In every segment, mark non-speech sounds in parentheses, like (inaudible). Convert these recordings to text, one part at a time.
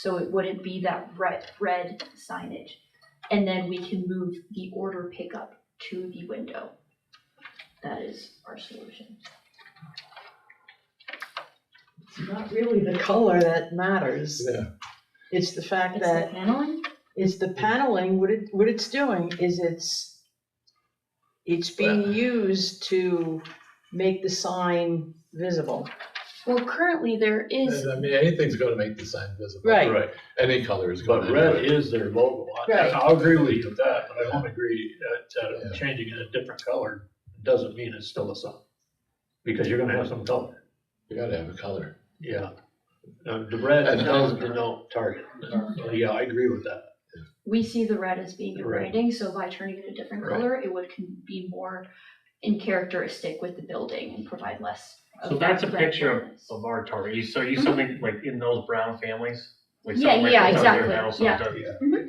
So it wouldn't be that red, red signage. And then we can move the order pickup to the window. That is our solution. It's not really the color that matters. Yeah. It's the fact It's the that, paneling? it's the paneling, what it, what it's doing is it's, it's being used to make the sign visible. Well, currently there is, And I mean, anything's gonna make the sign visible. Right. Right, Any color is gonna but do red it. is their logo. I- Right. I'll agree with you with that, but I won't agree that Yeah. uh, changing it a different color doesn't mean it's still a sign. Because you're gonna have some color, You gotta have a color. yeah. Uh, The red And does dark. denote target. So, Yeah, I agree with that. we see the red as being your Right. branding, so by turning it a different Right. color, it would can be more in characteristic with the building and provide less of So that that's a red picture of, brightness. of our target, You- so you something like in those brown families? like Mm-hmm. Yeah, something like yeah, that's on their exactly, house, on yeah. their-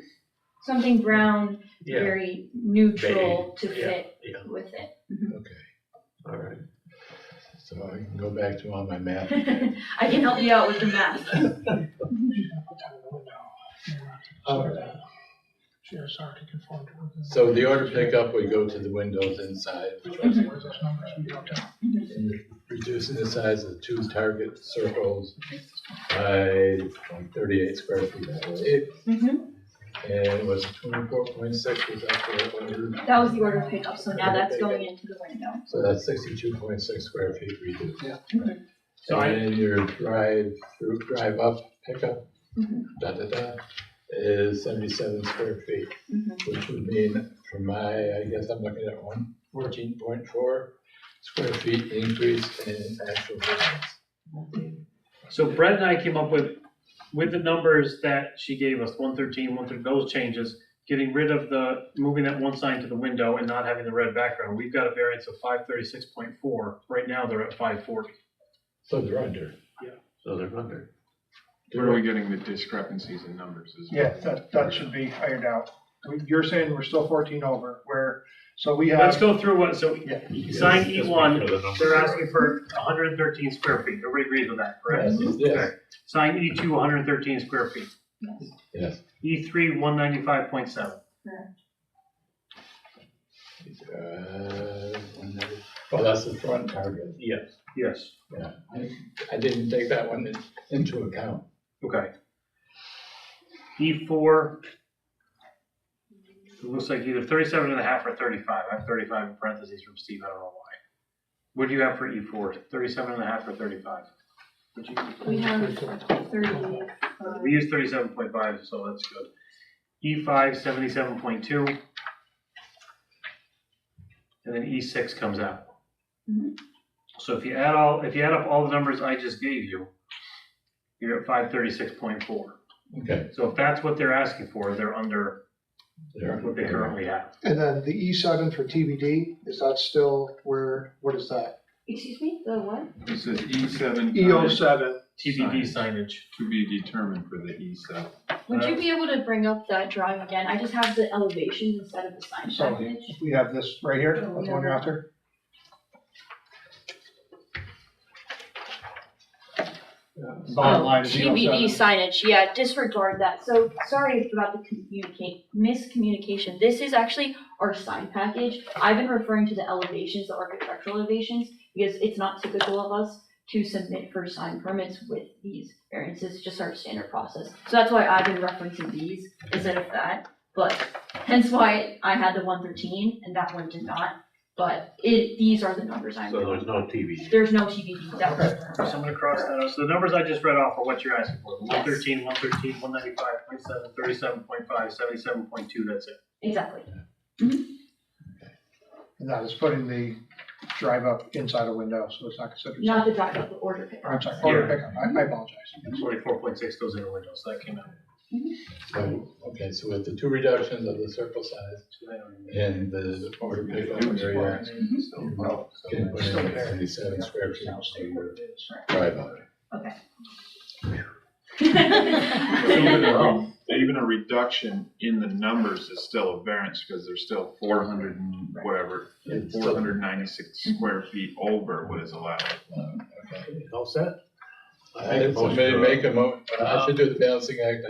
Something brown, Yeah, very neutral to yeah, fit yeah. with it. Mm-hmm. Okay, all right. so I can go back to all my math. (laughs) I can help you out with the math. Um, Chairs are to conform to. So the order pickup would go to the windows inside, which What is those numbers we don't have? reducing the size of two target circles by like thirty-eight square feet. that way. It- Mhm. And was twenty-four point six, was that the order? (laughs) That was the order of pickup, so now that's going into the window. So that's sixty-two point six square feet reduced. Yeah. So I- And your drive through, drive up pickup, Mhm. da da da, is seventy-seven square feet, Mhm. which would mean for my, I guess I'm looking at one fourteen point four square feet increase in actual distance. So Brett and I came up with, with the numbers that she gave us, one thirteen, one thirteen, those changes, getting rid of the, moving that one sign to the window and not having the red background, we've got a variance of five thirty-six point four, right now they're at five forty. So they're under. So they're under. Where are we getting the discrepancies in numbers? is- Yeah, that, that should be ironed out. We- You're saying we're still fourteen over, where, so we Let's have, go through what, so Yeah. sign E Yes, one, just make sure the numbers they're are asking for hundred and thirteen square feet, everybody agrees with that, correct? Yes, yes, Okay. Sign E two, hundred and thirteen square feet. yes. E three, one ninety-five point seven. Uh, one there. Well, that's the front target, Yes. Yes, yeah. I- I didn't take that one in- into account. okay. E four. It looks like either thirty-seven and a half or thirty-five, I have thirty-five in parentheses from Steve, I don't know why. What do you have for E four? Thirty-seven and a half or thirty-five? We have thirty, uh, We use thirty-seven point five, so that's good. E five, seventy-seven point two. And then E six comes out. Mhm. So if you add all, if you add up all the numbers I just gave you, you're at five thirty-six point four. Okay. So if that's what they're asking for, they're under They're- what they currently have. And then the E seven for TBD, is that still where, what is that? excuse me, the what? This is E seven. EO oh seven, TBD signage. To be determined for the E seven. Would you be able to bring up that drawing again? I just have the elevations instead of the sign So- package. we have this right here, Oh, that's the one you're after. Oh, Bottom line is EO TBD seven. signage, yeah, disregard that. So sorry about the communicate, miscommunication. This is actually our sign package. I've been referring to the elevations, the architectural elevations, because it's not typical of us to submit for sign permits with these variances, it's just our standard process. So that's why I've been referencing these instead of that, but hence why I had the one thirteen and that one did not. But it, these are the numbers I'm, So there's no TV. there's no TBD, that was. So I'm gonna cross that out. So the numbers I just read off are what you're asking for. Yes. 113, 113, 195.7, 37.5, 77.2, that's it. Exactly. And that is putting the drive up inside a window, so it's not considered. Not the drive up, the order pickup. Or I'm sorry, order Yeah. pickup, I I apologize. Twenty-four point six goes in the window, so that came out. So, okay, so with the two reductions of the circle size and the order pickup area, Mm-hmm. So, well, so can put it's in still like there. seventy-seven square feet for your Right. drive up. So Even (laughs) a- even a reduction in the numbers is still a variance because they're still four hundred and whatever, It's four still- hundred ninety-six square feet over what is allowed. uh, okay. All set? I think somebody make a mo, I should do the balancing act